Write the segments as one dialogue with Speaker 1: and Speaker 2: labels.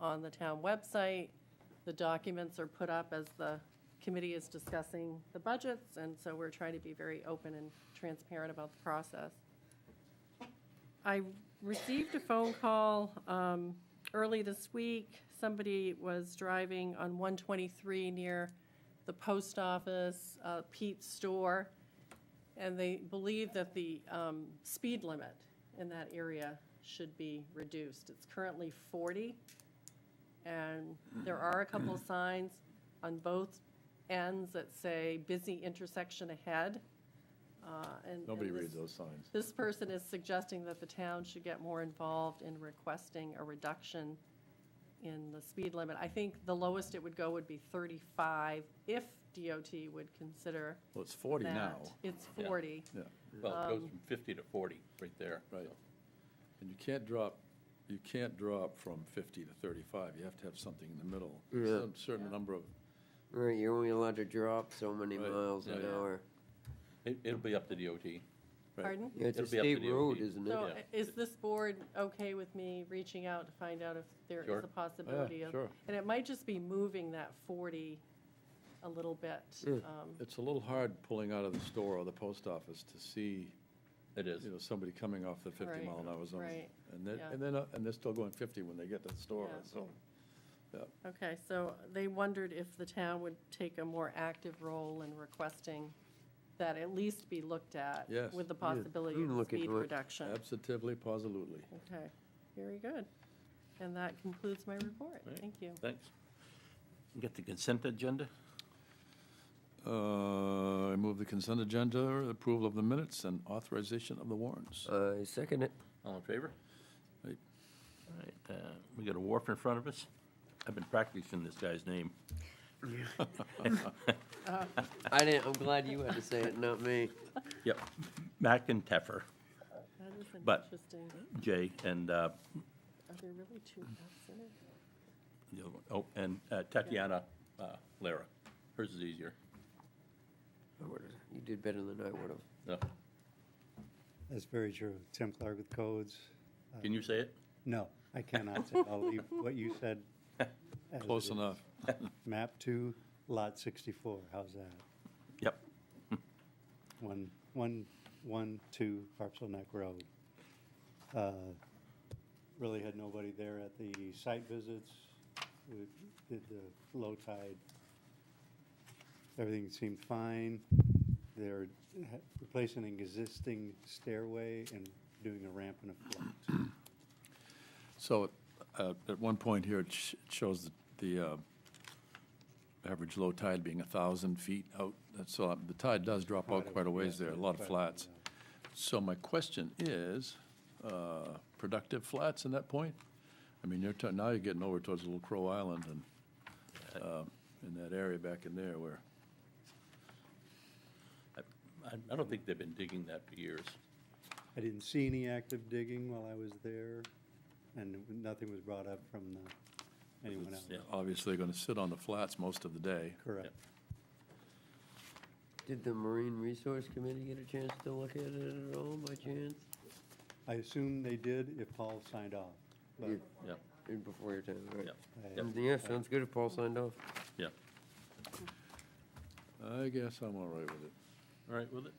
Speaker 1: on the town website. The documents are put up as the committee is discussing the budgets, and so we're trying to be very open and transparent about the process. I received a phone call um, early this week. Somebody was driving on 123 near the post office, uh, Pete's store, and they believe that the um, speed limit in that area should be reduced. It's currently 40, and there are a couple of signs on both ends that say busy intersection ahead. uh, and-
Speaker 2: Nobody
Speaker 1: and this-
Speaker 2: reads those signs.
Speaker 1: this person is suggesting that the town should get more involved in requesting a reduction in the speed limit. I think the lowest it would go would be 35 if DOT would consider
Speaker 2: Well, it's 40 now.
Speaker 1: that. It's
Speaker 3: Yeah.
Speaker 1: 40.
Speaker 2: Yeah,
Speaker 3: Well, it goes from 50 to 40, right there.
Speaker 2: right.
Speaker 3: so.
Speaker 2: And you can't drop, you can't drop from 50 to 35. You have to have something in the middle.
Speaker 4: Yeah.
Speaker 2: Some certain number of,
Speaker 4: Right, you're only allowed to drop so many
Speaker 2: Right,
Speaker 4: miles an
Speaker 3: yeah.
Speaker 4: hour.
Speaker 3: It- It'll be up to DOT.
Speaker 2: Right.
Speaker 1: Pardon?
Speaker 4: Yeah, it's a
Speaker 3: It'll be up to
Speaker 4: state road,
Speaker 3: DOT.
Speaker 4: isn't it?
Speaker 1: So uh,
Speaker 3: Yeah.
Speaker 1: is this board okay with me reaching out to find out if there
Speaker 3: Sure.
Speaker 1: is a possibility of?
Speaker 2: Ah, sure.
Speaker 1: And it might just be moving that 40 a little bit. um,
Speaker 2: it's a little hard pulling out of the store or the post office to see,
Speaker 3: It is.
Speaker 2: you know, somebody coming off the 50
Speaker 1: Right,
Speaker 2: mile an hour zone.
Speaker 1: right,
Speaker 2: And then,
Speaker 1: yeah.
Speaker 2: and then, uh, and they're still going 50 when they get to the store,
Speaker 1: Yeah.
Speaker 2: so.
Speaker 1: Okay, so they wondered if the town would take a more active role in requesting that at least be looked at.
Speaker 2: Yes.
Speaker 1: With the possibility of
Speaker 4: Mm, look into
Speaker 1: speed
Speaker 4: it.
Speaker 1: reduction.
Speaker 2: Absolutely, positively.
Speaker 1: Okay, very good. And that concludes my report.
Speaker 3: Right.
Speaker 1: Thank you.
Speaker 3: Thanks. You Got the consent agenda?
Speaker 2: Uh, I move the consent agenda, approval of the minutes, and authorization of the warrants.
Speaker 4: Uh, second it.
Speaker 3: All in favor?
Speaker 2: Right.
Speaker 3: All right, uh, we got a wharf in front of us. I've been practicing this guy's name.
Speaker 4: I didn't, I'm glad you had to say it, not me.
Speaker 3: Yep. McInteffer,
Speaker 1: That is an
Speaker 3: But-
Speaker 1: interesting,
Speaker 3: Jay, and, uh,
Speaker 1: are there really two Fs in it?
Speaker 3: the other one- oh, and uh, Tatiana uh, Lara. Hers is easier.
Speaker 4: I would've- You did better than I would have.
Speaker 3: No.
Speaker 5: That's very true. Tim Clark with codes.
Speaker 3: Can you say it?
Speaker 5: No, I cannot say I'll leave what you said. as
Speaker 2: Close
Speaker 5: is.
Speaker 2: enough.
Speaker 5: Map two, lot sixty-four. How's that?
Speaker 3: Yep.
Speaker 5: One, one, one, two, Harpsel Neck Road. Uh, Really had nobody there at the site visits. We did the low tide. Everything seemed fine. They're ha- replacing an existing stairway and doing a ramp and a float.
Speaker 2: So uh, at one point here, it sh- it shows that the uh, average low tide being 1,000 feet out. That's- So uh, the tide does drop out quite a ways there, a lot of flats. So my question is, uh, productive flats in that point? I mean, you're, ta- now you're getting over towards Little Crow Island and uh, in that area back in there where,
Speaker 3: I I don't think they've been digging that for years.
Speaker 5: I didn't see any active digging while I was there, and nothing was brought up from the, anyone else.
Speaker 3: Yeah.
Speaker 2: obviously going to sit on the flats most of the day.
Speaker 5: Correct.
Speaker 4: Did the Marine Resource Committee get a chance to look at it at all by chance?
Speaker 5: I assume they did if Paul signed off, but
Speaker 4: You-
Speaker 3: Yeah,
Speaker 4: you- Before your time, right?
Speaker 3: yeah,
Speaker 5: I-
Speaker 4: Um, Yeah, sounds good if Paul signed off.
Speaker 3: yeah.
Speaker 2: I guess I'm all right with it.
Speaker 3: All right with it?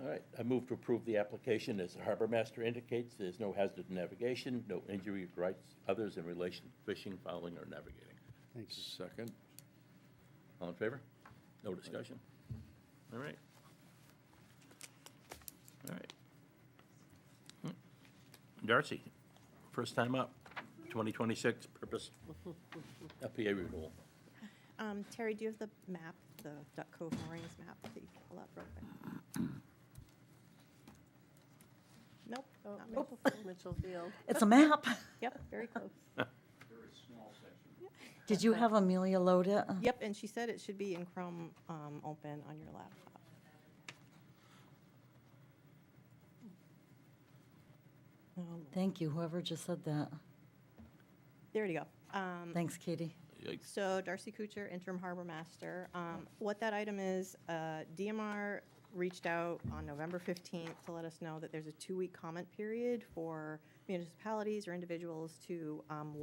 Speaker 3: All right, I move to approve the application. As the harbor master indicates, there's no hazard in navigation, no injury to rights others in relation to fishing, fouling, or navigating.
Speaker 5: thank you.
Speaker 2: Second.
Speaker 3: All in favor? No discussion? All right. All right. Hmm. Darcy, first time up, 2026 purpose, FPA renewal.
Speaker 6: Um, Terry, do you have the map, the Duck Cove moorings map that you can pull up real quick? Nope. not me.
Speaker 1: Oh, Mitchell Field.
Speaker 7: It's a map.
Speaker 6: Yep, very close.
Speaker 7: Did you have Amelia load it? Oh,
Speaker 6: Yep, and she said it should be in Chrome, um, open on your laptop. Oh, Lord.
Speaker 7: Thank you, whoever just said that.
Speaker 6: There you go. Um,
Speaker 7: Thanks, Katie.
Speaker 3: Yikes.
Speaker 6: So Darcy Kuchar, interim harbor master. Um, What that item is, uh, DMR reached out on November 15th to let us know that there's a two-week comment period for municipalities or individuals to um,